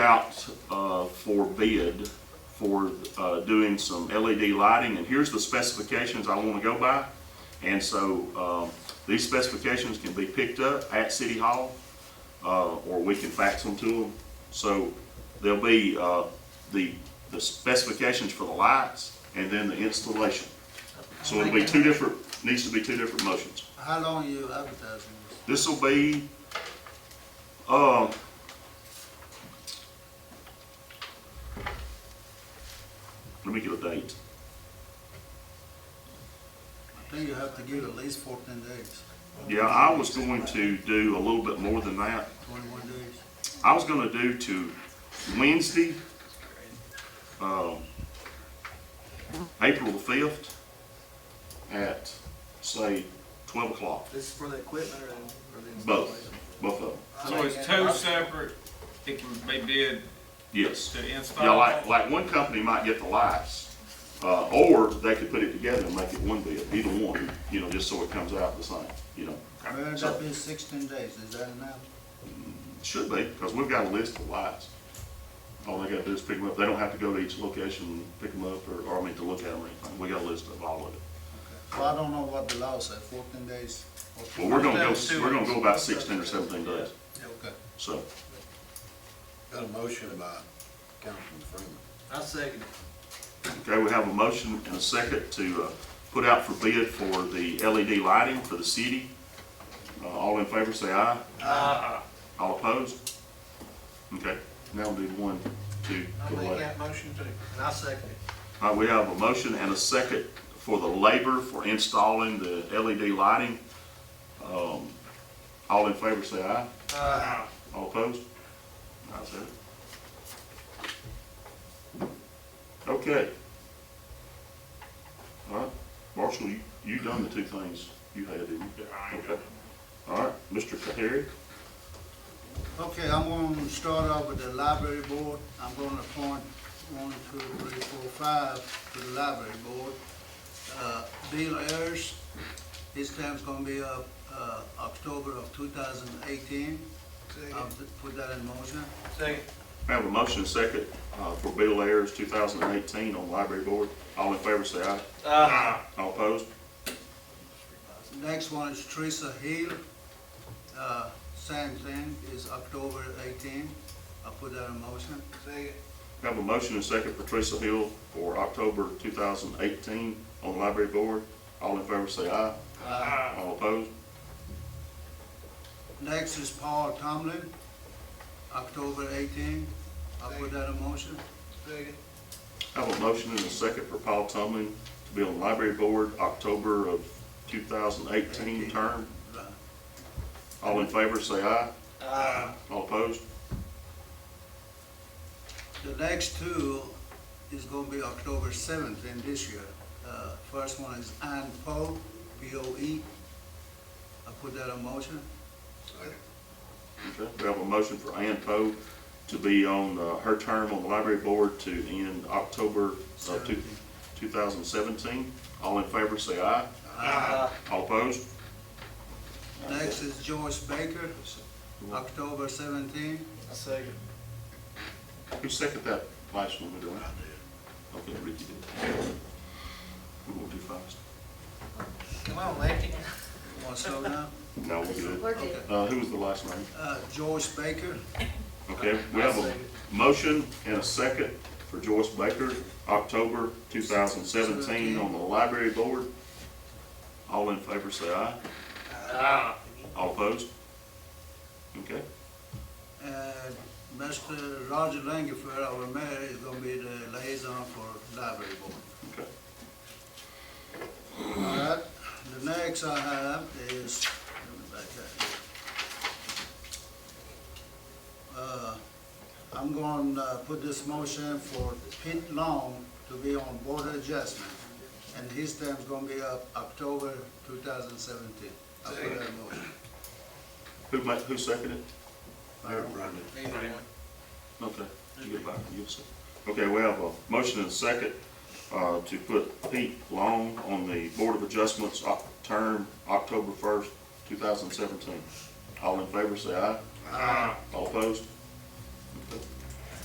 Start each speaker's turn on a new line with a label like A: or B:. A: out uh, for bid for uh, doing some LED lighting, and here's the specifications I want to go by. And so um, these specifications can be picked up at City Hall, uh, or we can fax them to them. So there'll be uh, the the specifications for the lights and then the installation. So it'll be two different, needs to be two different motions.
B: How long you advertising this?
A: This will be, um, let me get a date.
B: I think you have to give at least fourteen days,
A: Yeah, I was going to do a little bit more than that.
B: twenty-one days.
A: I was gonna do to Wednesday, um, April the fifth at, say, twelve o'clock,
C: This is for the equipment or the- or the
A: both,
C: installation?
A: both of them,
D: So it's two separate, it can be bid
A: yes.
D: to
A: Yeah,
D: install?
A: like, like one company might get the lights, uh, or they could put it together and make it one bid, either one, you know, just so it comes out the same, you know.
B: Well,
A: So,
B: that be sixteen days, is that enough?
A: Should be, because we've got a list of lights. All they gotta do is pick them up, they don't have to go to each location, and pick them up, or, or I mean, to look at them or anything, we got a list of all of it.
B: Well, I don't know what the law says, fourteen days. or
A: Well, we're gonna
D: Let's
A: go,
D: do it.
A: we're gonna go about sixteen or seventeen days,
B: Okay.
A: so,
E: Got a motion by Councilman Freeman.
C: I second it.
A: okay, we have a motion and a second to, uh, put out for bid for the LED lighting for the city. Uh, all in favor, say aye. All opposed? Okay, now we'll do one, two,
C: I'll
A: for the
C: make
A: labor.
C: that motion too. And I second it.
A: All right, we have a motion and a second for the labor for installing the LED lighting. Um, all in favor, say aye.
C: Uh,
A: All opposed? Ayes have it. Okay. All right, Marshall, you, you done the two things you had, didn't you? Okay. All right, Mr. Tahari,
B: Okay, I'm gonna start off with the library board. I'm gonna appoint one, two, three, four, five to the library board. Uh, Bill Ayers, his term's gonna be up, uh, October of two thousand eighteen. I'll
C: second,
B: put that in motion.
C: second.
A: I have a motion and second, uh, for Bill Ayers, two thousand and eighteen on library board. All in favor, say aye.
C: Uh,
A: All opposed?
B: Next one is Teresa Hill. Uh, Same thing, is October 18. I'll put that in motion.
C: second,
A: Have a motion and second for Teresa Hill for October 2018 on the library board. All in favor say aye.
B: Uh,
A: All opposed?
B: Next is Paul Tomlin, October 18. I'll put that in motion.
C: second,
A: Have a motion and a second for Paul Tumlin to be on the library board October of 2018 term.
B: Uh,
A: All in favor say aye.
C: uh,
A: All opposed?
B: The next two is going to be October 17 this year. Uh, First one is Ann Poe, B-O-E. I'll put that in motion.
A: Okay. We have a motion for Ann Poe to be on uh, her term on the library board to end October of two- 2017. All in favor say aye.
C: uh,
A: All opposed?
B: Next is Joyce Baker, October 17.
C: I second.
A: Who seconded that last one, did I? Okay, Ricky did. We won't do fast.
C: Come on, Lefty.
B: Want to slow down?
A: No, we're good.
F: We're good.
A: Uh, who was the last name?
B: Uh, Joyce Baker,
A: Okay, we have a motion and a second for Joyce Baker, October two thousand seventeen, on the library board. All in favor, say aye.
C: Uh,
A: All opposed? Okay,
B: And Mr. Uh, Roger Langford, our mayor, is gonna be the liaison for library board.
A: okay.
B: All right, the next I have is, let me back up. Uh, I'm gonna uh, put this motion for Pete Long to be on board adjustment, and his term's gonna be up October two thousand seventeen. I put that motion.
A: Who made, who seconded it?
E: Mayor Brendan.
A: Okay, you get back, you see. Okay, we have a motion and a second, uh, to put Pete Long on the Board of Adjustments, Oc- term October first, two thousand seventeen. All in favor, say aye. All opposed? Okay.